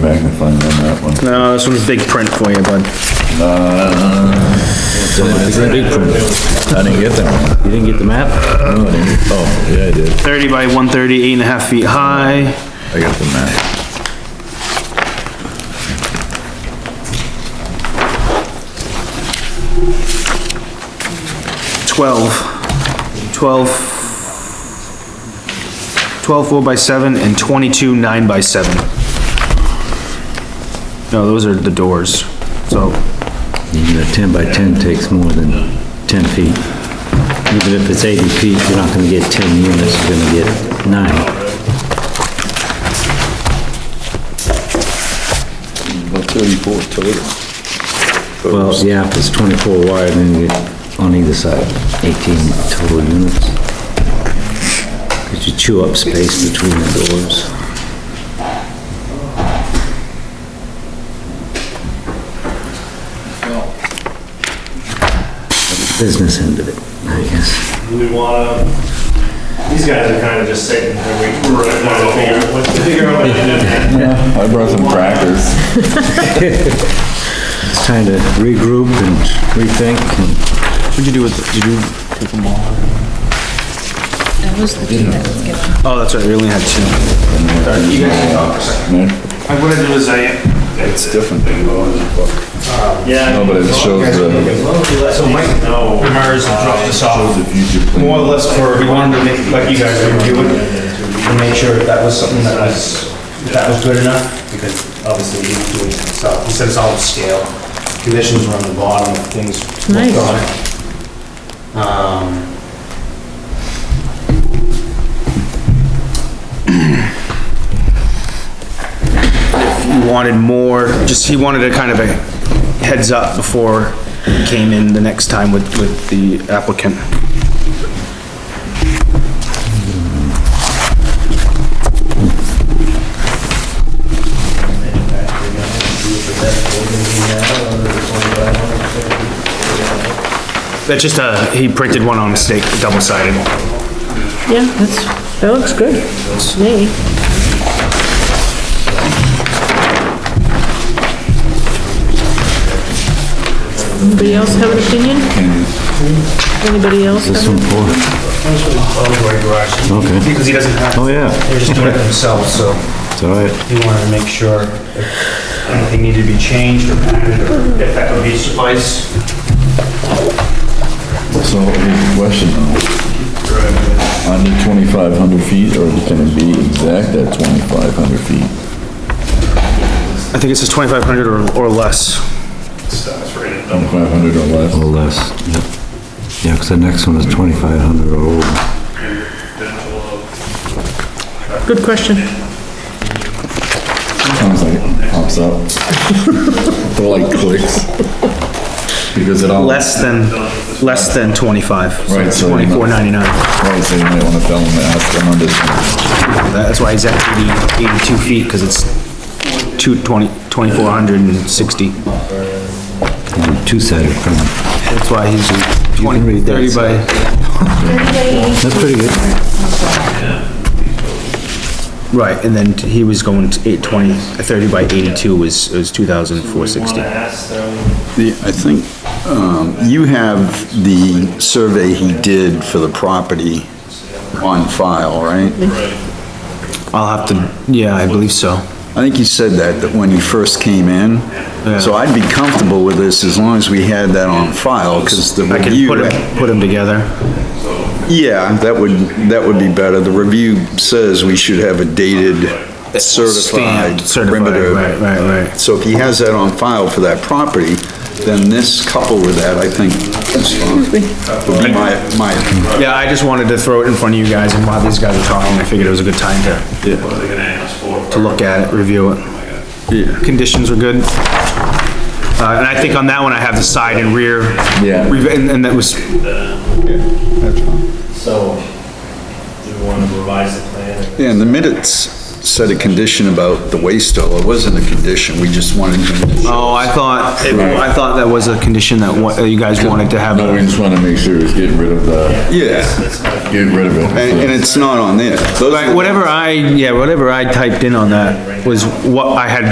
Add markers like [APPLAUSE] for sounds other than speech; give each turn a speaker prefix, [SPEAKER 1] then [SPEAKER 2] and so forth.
[SPEAKER 1] trying to find on that one.
[SPEAKER 2] No, this one's big print for you, bud.
[SPEAKER 1] Uh, I didn't get that one.
[SPEAKER 3] You didn't get the map?
[SPEAKER 1] No, I didn't. Oh, yeah, I did.
[SPEAKER 2] Thirty by 130, eight and a half feet high.
[SPEAKER 1] I got the map.
[SPEAKER 2] Twelve. Twelve. Twelve four by seven and twenty-two nine by seven. No, those are the doors, so,
[SPEAKER 3] Even a ten by ten takes more than ten feet. Even if it's eighty feet, you're not gonna get ten units, you're gonna get nine.
[SPEAKER 1] About thirty-four total.
[SPEAKER 3] Well, yeah, if it's twenty-four wide, then you get on either side, eighteen total units. Cause you chew up space between the doors. Business end of it, I guess.
[SPEAKER 4] We wanna, these guys are kinda just sitting there waiting. We're gonna figure, let's figure out what to [LAUGHS] do.
[SPEAKER 1] I brought some crackers.
[SPEAKER 3] It's time to regroup and rethink and
[SPEAKER 2] what'd you do with, did you take them all?
[SPEAKER 5] That was the key that was given.
[SPEAKER 2] Oh, that's right, we only had two.
[SPEAKER 1] You guys can talk for a second.
[SPEAKER 4] I'm gonna do is I,
[SPEAKER 1] It's different than the one in the book.
[SPEAKER 4] yeah.
[SPEAKER 1] No, but it shows the,
[SPEAKER 4] So Mike, no, ours dropped us off.
[SPEAKER 1] shows the future plan.
[SPEAKER 4] more or less for, we wanted to make, like you guys were doing, to make sure that that was something that was, that was good enough, because obviously we didn't do it ourselves, we set us all to scale. Conditions were on the bottom, things
[SPEAKER 5] Nice.
[SPEAKER 4] looked on it. Um,
[SPEAKER 2] He wanted more, just, he wanted a kind of a heads up before he came in the next time with, with the applicant. That's just a, he printed one on mistake, double-sided.
[SPEAKER 6] Yeah, that's, that looks good. to Me. Anybody else have an opinion? Anybody else?
[SPEAKER 3] this
[SPEAKER 6] have-
[SPEAKER 3] one for, okay,
[SPEAKER 4] Because he doesn't have,
[SPEAKER 3] oh yeah,
[SPEAKER 4] they're just doing it themselves, so
[SPEAKER 3] it's all right.
[SPEAKER 4] he wanted to make sure if anything needed to be changed or added, or if that would be suffice.
[SPEAKER 1] So, here's the question though. Under twenty-five hundred feet, or can it be exact at twenty-five hundred feet?
[SPEAKER 2] I think it says 2,500 or, or less.
[SPEAKER 1] Twenty-five hundred or less?
[SPEAKER 3] Or less, yep. Yeah, 'cause the next one is 2,500 or over.
[SPEAKER 6] Good question.
[SPEAKER 1] Sounds like it pops up. [LAUGHS] The light clicks. Because it all.
[SPEAKER 2] Less than, less than 25. so
[SPEAKER 1] Right, so you're not-
[SPEAKER 2] 24.99.
[SPEAKER 1] Right, so you might wanna tell them to ask them under,
[SPEAKER 2] That's why he's at 80 82 feet, because it's 220, 2,460.
[SPEAKER 3] Yeah, Two-sided print.
[SPEAKER 2] That's why he's
[SPEAKER 3] can
[SPEAKER 2] 20,
[SPEAKER 3] read that
[SPEAKER 2] 30 by,
[SPEAKER 3] That's pretty good.
[SPEAKER 2] right, and then he was going to 820, 30 by 82 was, was 2,460.
[SPEAKER 7] The, I think, um, you have the survey he did for the property on file, right?
[SPEAKER 2] I'll have to, yeah, I believe so.
[SPEAKER 7] I think you said that, that when you first came in. So I'd be comfortable with this as long as we had that on file, because the
[SPEAKER 2] I can
[SPEAKER 7] review.
[SPEAKER 2] put them, put them together.
[SPEAKER 7] Yeah, that would, that would be better. The review says we should have a dated certified
[SPEAKER 2] Stamped, certified,
[SPEAKER 7] perimeter.
[SPEAKER 2] Right, right, right.
[SPEAKER 7] So if he has that on file for that property, then this coupled with that, I think, is fine. Would be my, my opinion.
[SPEAKER 2] Yeah, I just wanted to throw it in front of you guys, and while these guys were talking, I figured it was a good time to, to look at it, review it. Conditions were good. Uh, and I think on that one, I have the side and rear.
[SPEAKER 1] Yeah.
[SPEAKER 2] Rev- And, and that was,
[SPEAKER 4] So, do we want to revise the plan?
[SPEAKER 7] Yeah, and the minutes said a condition about the waste oil. It wasn't a condition, we just wanted him to show.
[SPEAKER 2] oh, I thought, it- I thought that was a condition that wa- that you guys wanted to have.
[SPEAKER 1] no, we just wanna make sure it's getting rid of the,
[SPEAKER 7] Yeah,
[SPEAKER 1] getting rid of it.
[SPEAKER 7] and, and it's not on there. Those are
[SPEAKER 2] Right,
[SPEAKER 7] the-
[SPEAKER 2] whatever I, yeah, whatever I typed in on that was what I had